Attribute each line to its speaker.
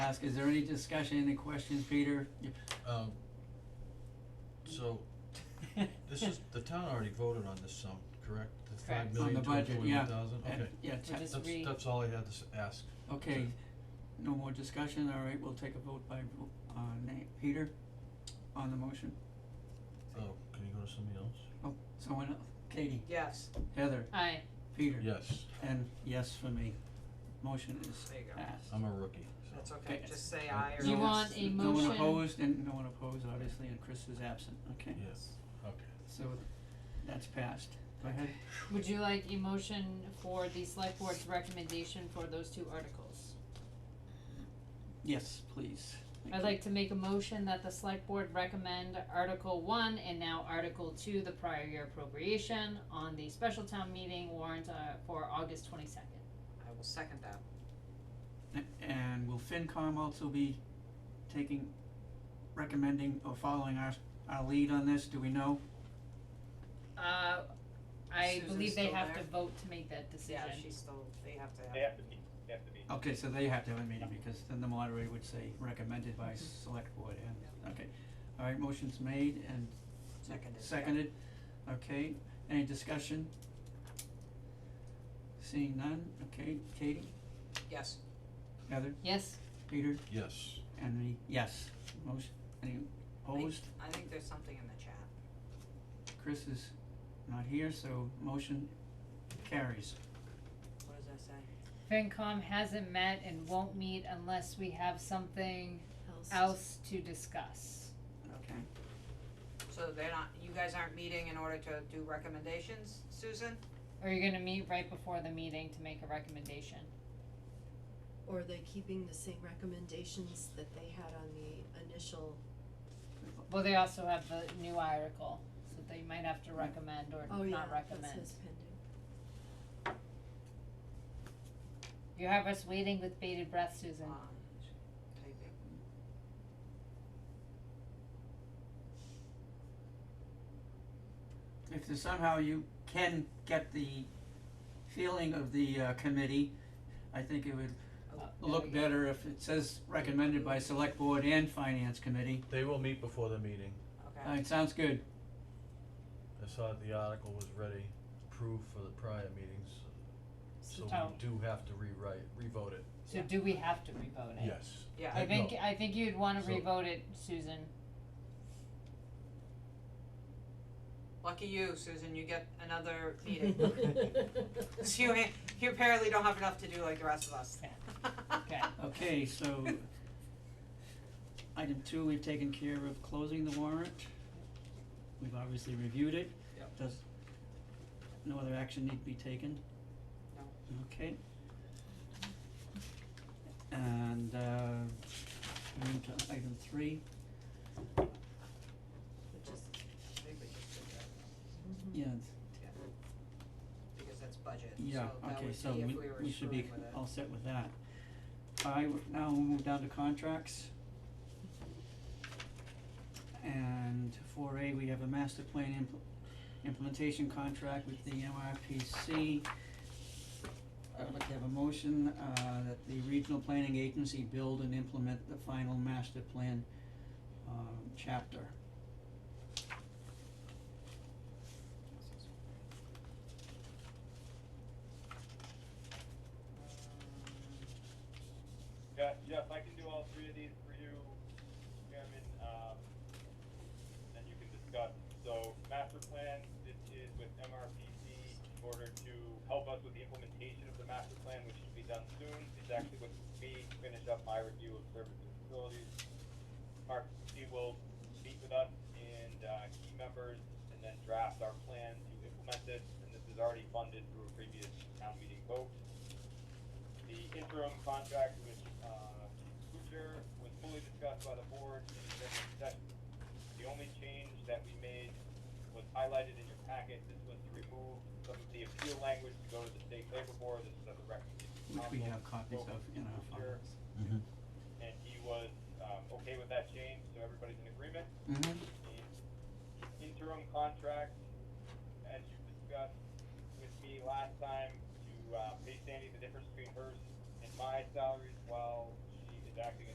Speaker 1: ask, is there any discussion, any questions, Peter?
Speaker 2: Um, so, this is, the town already voted on this sum, correct? The
Speaker 3: Correct.
Speaker 2: five
Speaker 3: On
Speaker 2: million,
Speaker 1: the
Speaker 2: two
Speaker 1: budget,
Speaker 2: hundred
Speaker 1: yeah.
Speaker 2: forty-one thousand,
Speaker 1: And-
Speaker 2: okay.
Speaker 1: Yeah,
Speaker 3: We're
Speaker 1: te-
Speaker 3: just re-
Speaker 2: That's, that's all I had to s- ask.
Speaker 1: okay, no more discussion, all right, we'll take a vote by, vo- uh, name, Peter, on the motion,
Speaker 2: Oh, can you go to somebody else?
Speaker 1: oh, someone else, Katie,
Speaker 4: Yes,
Speaker 1: Heather,
Speaker 3: Aye,
Speaker 1: Peter,
Speaker 2: Yes,
Speaker 1: and yes for me, motion is
Speaker 4: there you go.
Speaker 1: passed.
Speaker 2: I'm a rookie, so.
Speaker 4: That's okay,
Speaker 1: Okay.
Speaker 4: just say aye or
Speaker 3: You
Speaker 4: yes.
Speaker 3: want a
Speaker 1: No one
Speaker 3: motion?
Speaker 1: opposed, and no one opposed, obviously, and Chris is absent, okay,
Speaker 2: Yes, okay.
Speaker 1: so that's passed, go ahead.
Speaker 3: would you like a motion for the select board's recommendation for those two articles?
Speaker 1: Yes, please. Thank
Speaker 3: I'd
Speaker 1: you.
Speaker 3: like to make a motion that the select board recommend Article one and now Article two, the prior year appropriation on the special town meeting warrant, uh, for August twenty-second.
Speaker 4: I will second that.
Speaker 1: A- And will FinCom also be taking, recommending or following our, our lead on this, do we know?
Speaker 3: Uh, I
Speaker 4: Susan's
Speaker 3: believe they
Speaker 4: still
Speaker 3: have
Speaker 4: there?
Speaker 3: to vote to make that decision.
Speaker 4: Yeah, she's still, they have to have.
Speaker 5: They have to be, they have to be.
Speaker 1: Okay, so they have to have a meeting, because then the moderator would say recommended by select board, and, okay. Alright, motion's made and
Speaker 4: Seconded.
Speaker 1: seconded, okay, any discussion? Seeing none, okay, Katie,
Speaker 4: Yes,
Speaker 1: Heather,
Speaker 3: Yes,
Speaker 1: Peter,
Speaker 2: Yes,
Speaker 1: and me, yes, motion, any opposed?
Speaker 4: I think there's something in the chat.
Speaker 1: Chris is not here, so motion carries.
Speaker 4: What does that say?
Speaker 3: FinCom hasn't met and won't meet unless we have something else to discuss.
Speaker 1: Okay.
Speaker 4: So they're not, you guys aren't meeting in order to do recommendations, Susan?
Speaker 3: Or you're gonna meet right before the meeting to make a recommendation.
Speaker 6: Or are they keeping the same recommendations that they had on the initial,
Speaker 3: Well, they also have the new article, so they might have to recommend or
Speaker 6: oh yeah,
Speaker 3: not
Speaker 6: that
Speaker 3: recommend.
Speaker 6: says pending,
Speaker 3: You have us waiting with bated breath, Susan.
Speaker 6: Ah,
Speaker 4: Um, typing.
Speaker 1: If there's somehow you can get the feeling of the uh committee, I think it would
Speaker 3: Uh, there
Speaker 1: look
Speaker 3: we go.
Speaker 1: better if it says recommended by select board and finance committee.
Speaker 2: they will meet before the meeting.
Speaker 4: Okay,
Speaker 1: Alright, sounds good.
Speaker 2: I saw that the article was ready, approved for the prior meetings, so
Speaker 3: Oh.
Speaker 2: we do have to rewrite, revote it.
Speaker 3: So do we have to revote it?
Speaker 2: Yes.
Speaker 4: yeah,
Speaker 3: I
Speaker 2: Uh,
Speaker 3: think,
Speaker 2: no.
Speaker 3: I think you'd wanna
Speaker 2: So-
Speaker 3: revote it, Susan.
Speaker 4: lucky you, Susan, you get another meeting. So you, you apparently don't have enough to do like the rest of us.
Speaker 3: Okay.
Speaker 1: Okay, so item two, we've taken care of closing the warrant. We've obviously reviewed it.
Speaker 4: Yep.
Speaker 1: Does, no other action need to be taken?
Speaker 4: No.
Speaker 1: Okay. And uh moving to item three,
Speaker 6: which is,
Speaker 4: I think we just did that. Mm-hmm.
Speaker 1: yes,
Speaker 4: because that's budget,
Speaker 1: yeah,
Speaker 4: so that
Speaker 1: okay,
Speaker 4: would
Speaker 1: so we
Speaker 4: be if we were
Speaker 1: we should be
Speaker 4: screwing with it.
Speaker 1: all set with that. I would now move down to contracts. And four A, we have a master plan impl- implementation contract with the MRPC. I'd like to have a motion uh that the regional planning agency build and implement the final master plan um chapter.
Speaker 5: Yeah, Jeff, I can do all three of these for you, Chairman, um, and you can discuss. So master plan, this is with MRPC in order to help us with the implementation of the master plan, which should be done soon. It's actually with me to finish up my review of services and facilities. MRPC will meet with us and, uh, key members and then draft our plan to implement this. And this is already funded through a previous town meeting vote. The interim contract with, uh, Kuchar was fully discussed by the board in executive session. The only change that we made was highlighted in your packet, this was to remove some of the appeal language to go to the state labor board, this is at the recommendation. of
Speaker 1: Which we
Speaker 5: council.
Speaker 1: have copies of in our
Speaker 5: Kuchar,
Speaker 1: files.
Speaker 2: Mm-hmm.
Speaker 5: And he was, um, okay with that change, so everybody's in agreement?
Speaker 1: Mhm.
Speaker 5: the interim contract, as you discussed with me last time, to, uh, pay Sandy the difference between hers and my salaries while she is acting as